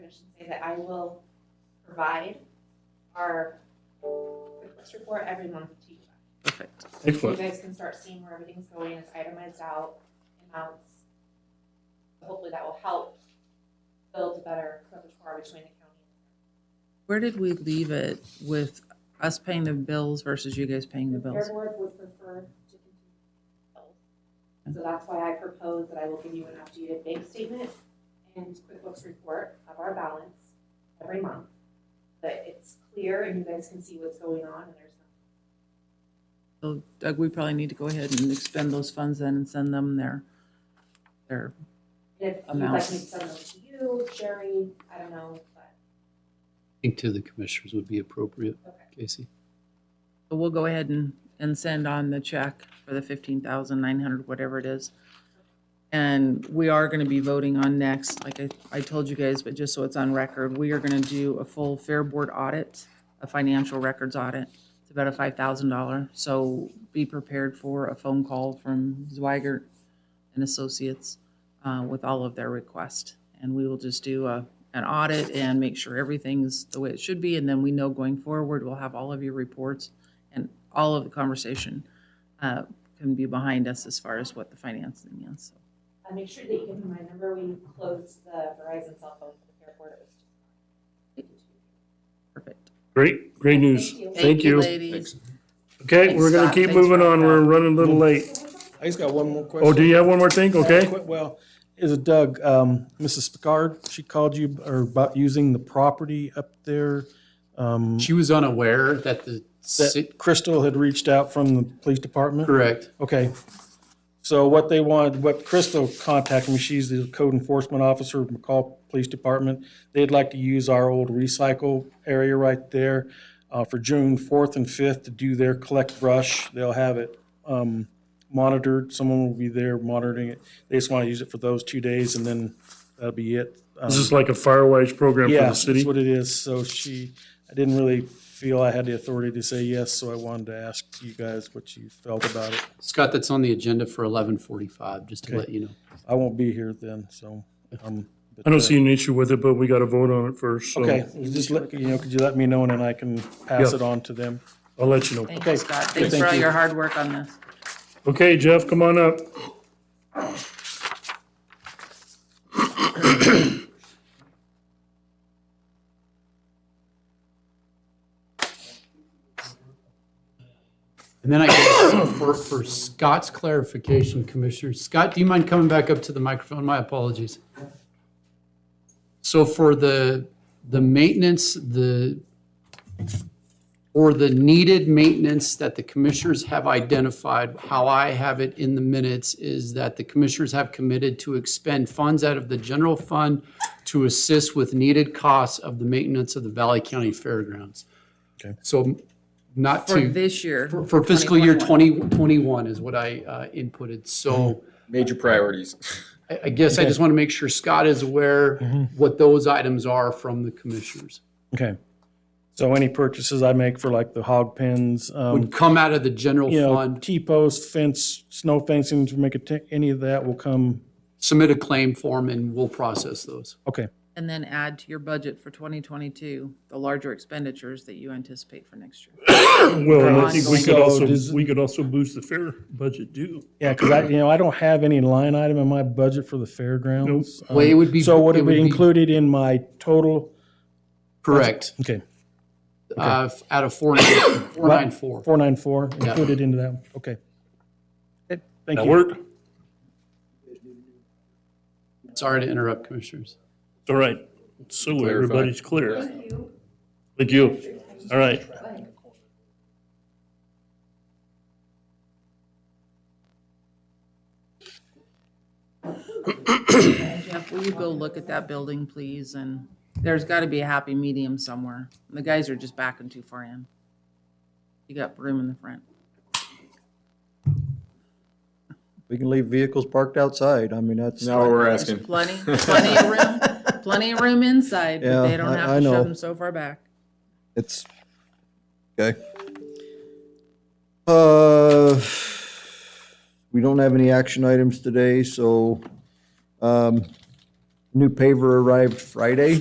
should say that I will provide our request report every month to you. Perfect. So you Excellent. guys can start seeing where everything's going, it's itemized out, amounts. Hopefully that will help build a better repertoire between the county Where did we leave it with us paying the bills versus you guys paying the and the bills? Fair Board would prefer to continue. both. So that's why I propose that I will give you an updated bank statement and QuickBooks report of our balance every month. But it's clear and you guys can see what's going on and there's nothing So Doug, we probably need to go ahead and expend those funds then and send them their, their, If you'd like me to send them to you, Sherry, I don't know, but I think to the commissioners would be appropriate, Okay. Casey. but we'll go ahead and, and send on the check for the fifteen thousand nine hundred, whatever it is. And we are gonna be voting on next, like I, I told you guys, but just so it's on record, we are gonna do a full Fair Board audit, a financial records audit. It's about a five thousand dollar, so be prepared for a phone call from Zweigert and Associates uh, with all of their requests. And we will just do a, an audit and make sure everything's the way it should be, and then we know going forward, we'll have all of your reports and all of the conversation uh, can be behind us as far as what the financing is. So I uh, make sure that you give me my number when you close the Verizon cell phone for the airport. It was just. Perfect. Great, great news. Thank you. Thank you. Ladies. Okay, Thanks, we're gonna Scott. keep Thanks moving for on. that. We're running a little late. I just got one more question. Oh, do you have one more thing? Okay. Qu- Well, is it Doug, um, Mrs. Picard, she called you or about using the property up there? Um, She was unaware that the, that Crystal had reached out from the police department? correct, Okay. So what they wanted, what Crystal contacted me, she's the code enforcement officer of McCall Police Department. They'd like to use our old recycle area right there uh, for June 4th and 5th to do their collect brush. They'll have it um, monitored. Someone will be there monitoring it. They just want to use it for those two days and then that'll be it. Um, This is like a Firewise program for Yeah, the that's city. what it is. So she, I didn't really feel I had the authority to say yes, so I wanted to ask you guys what you felt about it. Scott, that's on the agenda for eleven forty-five, just to let you know. I won't be here then, so. um, but, I don't uh, see an issue with it, but we gotta vote on it first, Okay, so you just let, you know, could you let me know and then I can pass Yeah. it on to them? I'll let you know. Thank you, Okay. Scott. Thanks for Thank all you. your hard work on this. Okay, Jeff, come on up. And then I guess for, for Scott's clarification, Commissioner, Scott, do you mind coming back up to the microphone? My apologies. So for the, the maintenance, the, or the needed maintenance that the commissioners have identified, how I have it in the minutes is that the commissioners have committed to expend funds out of the general fund to assist with needed costs of the maintenance of the Valley County Fairgrounds. Okay. So not to. For this year. For- For fiscal year 2021. 2021 is what I uh, inputted, so Major priorities. I I guess I just want to make sure Scott is aware what those items are from the commissioners. Okay. So any purchases I make for like the hog pens, um, Would come out of the general you know, fund, T-post, fence, snow fencing, to make a, tick- any of that will come, submit a claim form, and we'll process those. okay, And then add to your budget for 2022, the larger expenditures that you anticipate for next year. Well, and I think we could So also, does- we could also boost the fair budget too. yeah, because I, you know, I don't have any line item in my budget for the fairgrounds. Um, Well, it would be- So would it it would be be- included in my total? Correct, Okay. Uh, f- out of 494. Four nine four, included into that, one. okay. Okay, Thank That you. work? It's Sorry to interrupt, commissioners. all right. So Clarify. everybody's clear. Thank you. All right. Jeff, will you go look at that building, please? And there's got to be a happy medium somewhere. The guys are just backing too far in. You got room in the front. We can leave vehicles parked outside. I mean, that's. Now we're There's asking. plenty, plenty of room, plenty of room inside, but they Yeah, don't I- have I to know. shove them so far back. It's, okay. Uh, we don't have any action items today, so, um, new paver arrived Friday.